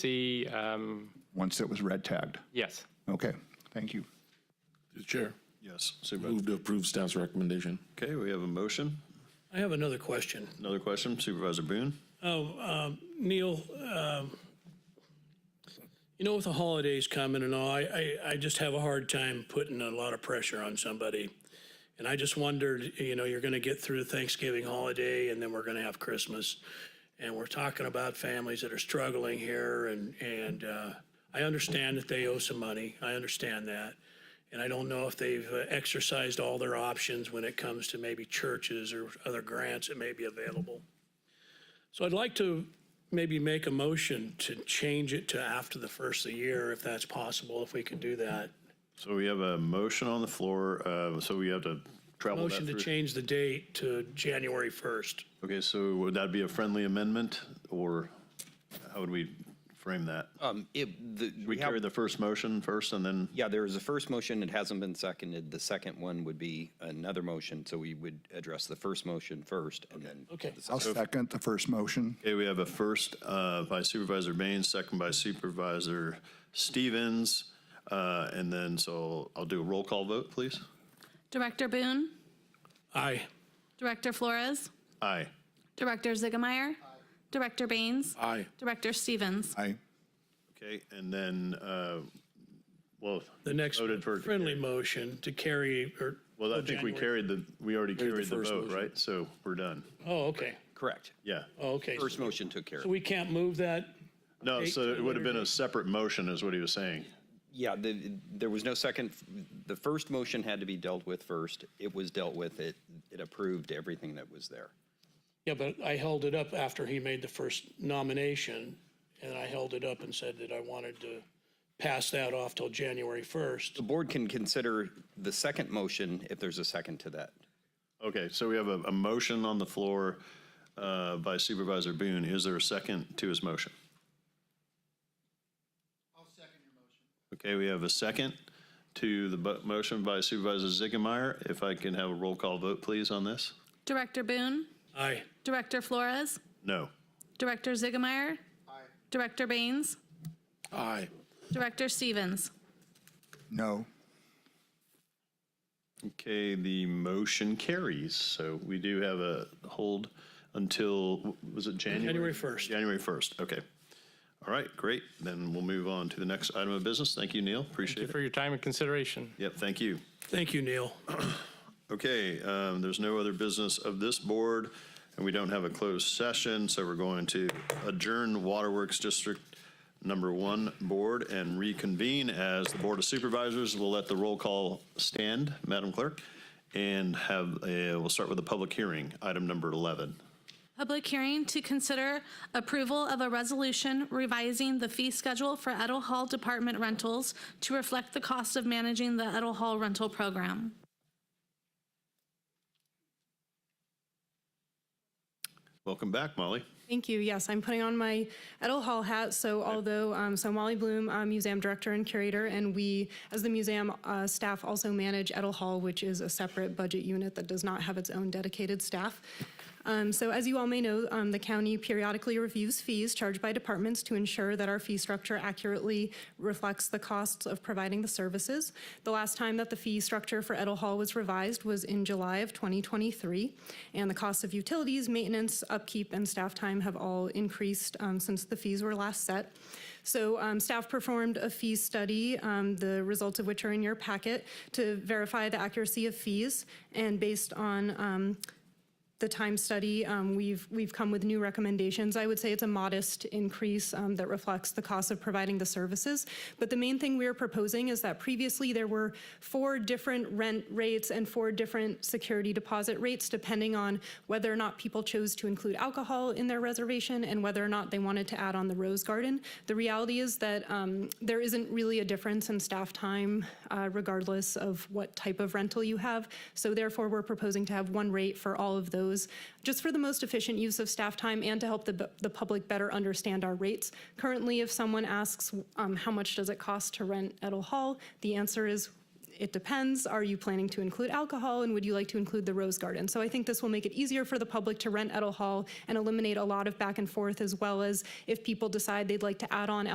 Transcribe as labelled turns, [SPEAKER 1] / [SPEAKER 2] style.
[SPEAKER 1] C, um,
[SPEAKER 2] once it was red tagged.
[SPEAKER 1] yes.
[SPEAKER 2] Okay, thank you.
[SPEAKER 3] Through the chair.
[SPEAKER 4] Yes.
[SPEAKER 3] Move to approve staff's recommendation.
[SPEAKER 4] Okay, we have a motion.
[SPEAKER 5] I have another question.
[SPEAKER 4] Another question, Supervisor Boone?
[SPEAKER 5] Oh, um, Neil, um, you know, with the holidays coming and all, I, I, I just have a hard time putting a lot of pressure on somebody. And I just wondered, you know, you're going to get through Thanksgiving holiday and then we're going to have Christmas. And we're talking about families that are struggling here and, and, uh, I understand that they owe some money. I understand that. And I don't know if they've uh, exercised all their options when it comes to maybe churches or other grants that may be available. So I'd like to maybe make a motion to change it to after the first of the year, if that's possible, if we could do that.
[SPEAKER 4] So we have a motion on the floor, uh, so we have to travel that
[SPEAKER 5] Motion to
[SPEAKER 4] through.
[SPEAKER 5] change the date to January 1st.
[SPEAKER 4] Okay, so would that be a friendly amendment, or how would we frame that?
[SPEAKER 6] Um, it, the,
[SPEAKER 4] We
[SPEAKER 6] we
[SPEAKER 4] carry
[SPEAKER 6] have,
[SPEAKER 4] the first motion first, and then,
[SPEAKER 6] yeah, there is a first motion, it hasn't been seconded. The second one would be another motion, so we would address the first motion first and then.
[SPEAKER 5] Okay.
[SPEAKER 2] I'll second the first motion.
[SPEAKER 4] okay, we have a first uh, by Supervisor Baines, second by Supervisor Stevens, uh, and then, so I'll do a roll call vote, please.
[SPEAKER 7] Director Boone,
[SPEAKER 5] Aye.
[SPEAKER 7] Director Flores,
[SPEAKER 4] Aye.
[SPEAKER 7] Director Ziegemeier, Director Baines,
[SPEAKER 3] Aye.
[SPEAKER 7] Director Stevens.
[SPEAKER 2] Aye.
[SPEAKER 4] Okay, and then, uh, well,
[SPEAKER 5] The next
[SPEAKER 4] Voted for it to
[SPEAKER 5] friendly
[SPEAKER 4] carry.
[SPEAKER 5] motion to carry, or, oh,
[SPEAKER 4] well, I think we carried the, we already carried the
[SPEAKER 3] first
[SPEAKER 4] vote,
[SPEAKER 3] motion.
[SPEAKER 4] right? So we're done.
[SPEAKER 5] oh, okay,
[SPEAKER 6] Correct.
[SPEAKER 4] Yeah.
[SPEAKER 5] oh, okay.
[SPEAKER 6] First motion took care
[SPEAKER 5] So
[SPEAKER 6] of.
[SPEAKER 5] we can't move that?
[SPEAKER 4] No,
[SPEAKER 5] Eight
[SPEAKER 4] so
[SPEAKER 5] to
[SPEAKER 4] it would have been a separate motion is what he was saying.
[SPEAKER 6] Yeah, the, there was no second, the first motion had to be dealt with first. It was dealt with, it, it approved everything that was there.
[SPEAKER 5] Yeah, but I held it up after he made the first nomination, and I held it up and said that I wanted to pass that off till January 1st.
[SPEAKER 6] The board can consider the second motion if there's a second to that.
[SPEAKER 4] Okay, so we have a, a motion on the floor uh, by Supervisor Boone. Is there a second to his motion? I'll second your motion. Okay, we have a second to the bu- motion by Supervisor Ziegemeier. If I can have a roll call vote, please, on this?
[SPEAKER 7] Director Boone,
[SPEAKER 5] Aye.
[SPEAKER 7] Director Flores,
[SPEAKER 4] No.
[SPEAKER 7] Director Ziegemeier, Director Baines,
[SPEAKER 3] Aye.
[SPEAKER 7] Director Stevens.
[SPEAKER 2] No.
[SPEAKER 4] Okay, the motion carries. So we do have a hold until, was it January?
[SPEAKER 5] January 1st.
[SPEAKER 4] January 1st, okay. All right, great. Then we'll move on to the next item of business. Thank you, Neil.
[SPEAKER 1] Thank you
[SPEAKER 4] Appreciate it.
[SPEAKER 1] for your time and consideration.
[SPEAKER 4] Yep, thank you.
[SPEAKER 5] Thank you, Neil.
[SPEAKER 4] Okay, um, there's no other business of this board, and we don't have a closed session, so we're going to adjourn Waterworks District Number One Board and reconvene as the Board of Supervisors. We'll let the roll call stand, Madam Clerk, and have, a- we'll start with a public hearing, item number 11.
[SPEAKER 7] Public hearing to consider approval of a resolution revising the fee schedule for Edel Hall Department rentals to reflect the cost of managing the Edel Hall rental program.
[SPEAKER 4] Welcome back, Molly.
[SPEAKER 8] Thank you. Yes, I'm putting on my Edel Hall hat. So although, um, so Molly Bloom, I'm museum director and curator, and we, as the museum uh, staff, also manage Edel Hall, which is a separate budget unit that does not have its own dedicated staff. Um, so as you all may know, um, the county periodically reviews fees charged by departments to ensure that our fee structure accurately reflects the costs of providing the services. The last time that the fee structure for Edel Hall was revised was in July of 2023, and the costs of utilities, maintenance, upkeep, and staff time have all increased um, since the fees were last set. So um, staff performed a fee study, um, the results of which are in your packet, to verify the accuracy of fees, and based on um, the time study, um, we've, we've come with new recommendations. I would say it's a modest increase um, that reflects the cost of providing the services. But the main thing we are proposing is that previously there were four different rent rates and four different security deposit rates, depending on whether or not people chose to include alcohol in their reservation and whether or not they wanted to add on the Rose Garden. The reality is that um, there isn't really a difference in staff time uh, regardless of what type of rental you have. So therefore, we're proposing to have one rate for all of those, just for the most efficient use of staff time and to help the, the public better understand our rates. Currently, if someone asks, um, how much does it cost to rent Edel Hall? The answer is, it depends. Are you planning to include alcohol and would you like to include the Rose Garden? So I think this will make it easier for the public to rent Edel Hall and eliminate a lot of back and forth as well as if people decide they'd like to add on